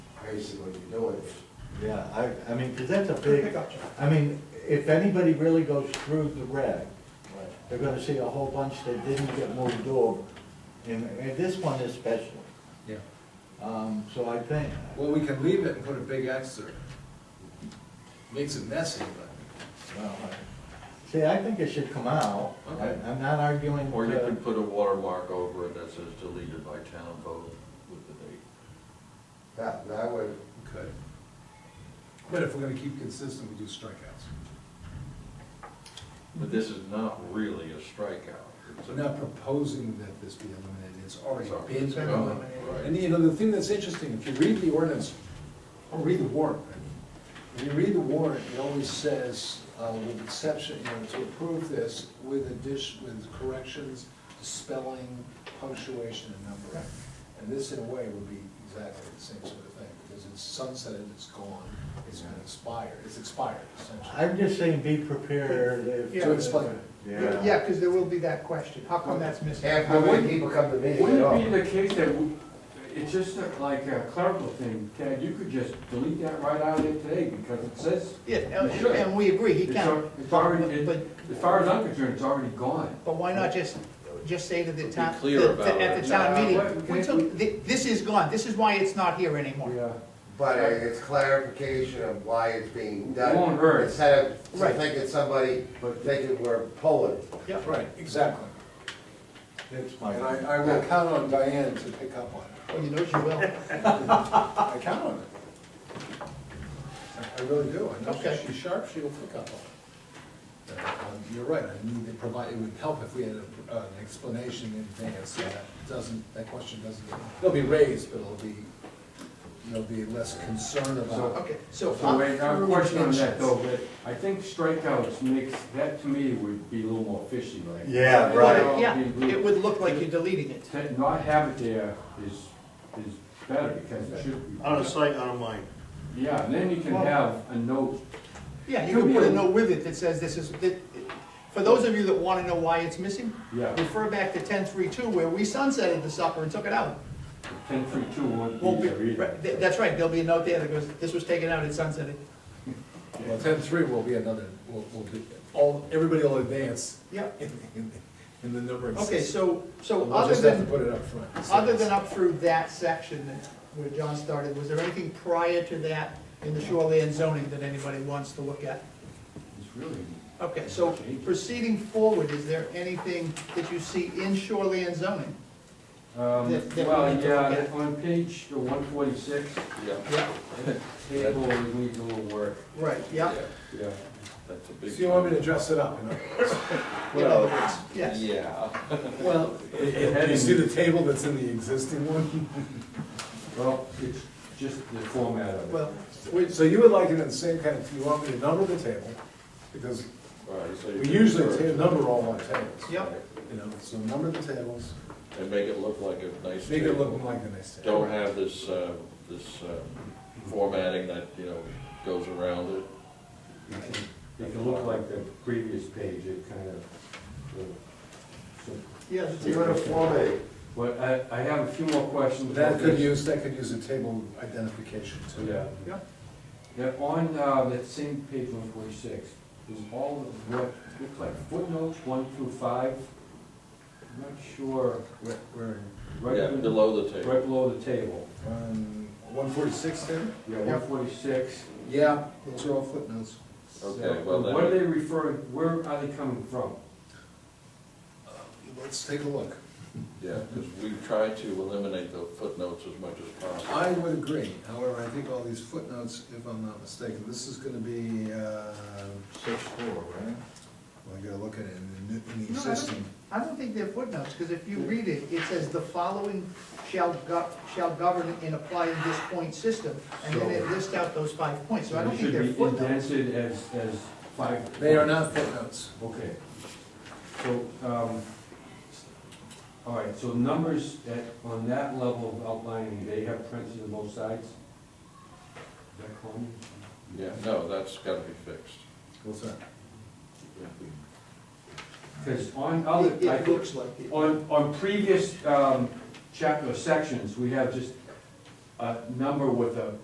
basically to do it. Yeah, I, I mean, because that's a I big, got you. I mean, if anybody really goes through the reg, they're gonna see a whole bunch that didn't get moved over, and, and this one especially. Yeah. Um, so I think, Well, we can leave it and put a big X through. Makes it messy, but, well, I- see, I think it should come out. I- Okay. I'm not arguing. Or you to- could put a watermark over it that says deleted by town vote with the date. That, that would, okay. But if we're gonna keep consistent, we do strikeouts. But this is not really a strikeout. It's a- We're not proposing that this be eliminated, it's already It's already been been eliminated. eliminated. And you know, the thing that's interesting, if you read the ordinance, or read the warrant, when you read the warrant, it always says, uh, with exception, you know, to approve this with addition, with corrections, spelling, punctuation, and numbering. And this in a way would be exactly the same sort of thing, because it's sunsetted, it's gone, it's been expired, it's expired essentially. I'm just saying be prepared if. Yeah. To explain it. Yeah, because there will be that question, how come that's missing? halfway people come to meetings, they Wouldn't it don't. be the case that, w- it's just like a clerical thing, Ted, you could just delete that right out of there today, because it says, Yeah, and- Sure. and we agree, he it's al- can, it's already, it- But- as far as I'm concerned, it's already gone. but why not just, just say to the Be town, clear the- about the- at it. the town Yeah. meeting, we Yeah. took, thi- this is gone, this is why it's not here anymore. But it's clarification of why it's being done. won't hurt. Instead of Right. thinking somebody, thinking we're pulling. Yep. Right, exactly. That's my. And I, I will count on Diane to pick up on it. Oh, you know she will. I count on it. I- I really do. I know Okay. she- she's sharp, she will pick up on it. Uh, um, You're right, I need to provide, it would help if we had a- uh, an explanation in advance, so that doesn't, that question doesn't, get- it'll be raised, but it'll be, there'll be less concern about. Okay, so. So wait, I'm now, a through question on that intentions. though, but I think strikeouts makes, that to me would be a little more fishy, like. Yeah, right. Yeah, it would look like you're deleting it. To not have it there is, is better, because it should be. Out of sight, out of mind. Yeah, and then you can have a note, Yeah, you can put a note with it that says this is, that, for those of you that wanna know why it's missing, yeah, refer back to ten three two where we sunsetted the supper and took it out. ten three two won't Won't be be, there either. right, th- that's right, there'll be a note there that goes, this was taken out at sunsetting. Well, ten-three will be another, will, will be, all, everybody will advance Yeah. in, in, in the numbering system. Okay, so, so We'll other just have to than, put it up front. other than up through that section that, where John started, was there anything prior to that in the shoreline zoning that anybody wants to look at? It's really, Okay, so proceeding forward, is there anything that you see in shoreline zoning? um, That- that we well, need to look yeah, at. on page one forty-six, Yeah, Yeah, table needs a little work, right, yeah. yeah. that's a big. So you want me to dress it up, you know? In other words, Yes. Yeah. Well. You see the table that's in the existing one? Well, it's just the format of it. Well, So you would like it in the same kind of, you want me to number the table, because Right, so you we can usually refer ta- to- number all our tables. Yep. You know, so number the tables, And make it look like a nice make it look table. like a nice table. Don't have this, uh, this uh, formatting that, you know, goes around it. It can- It can look like the previous page, it kind of, uh, you know, so- yeah, that's it. but I, I have a few more questions. That about could this. use, that could use a table identification too. Yeah. Yeah. Yeah, on, uh, that same page one forty-six, is all of what, looks like footnotes one through five. I'm not sure, Where, where, right, Yeah, in- below the table. right below the table, um, one forty-six then? yeah, one forty-six. Yeah, those are all footnotes. Okay, well What are then, they referring, where are they coming from? Let's take a look. yeah, because we try to eliminate the footnotes as much as possible. I would agree, however, I think all these footnotes, if I'm not mistaken, this is gonna be, uh, Six four, right? well, I gotta look at it in the, new- in the No, I don't- existing. I don't think they're footnotes, because if you read it, it says the following shall go, shall govern and apply in this point system, and then it lists out those five points, so I don't think they're It footnotes. should be indented as, as five. They are not footnotes. Okay. So, um, all right, so numbers at, on that level of outlining, they have parentheses on both sides? Is that common? Yeah, no, that's got to be fixed. What's that? Because on other, It, I it think, looks like it. on, on previous, um, chapter or sections, we have just a number with a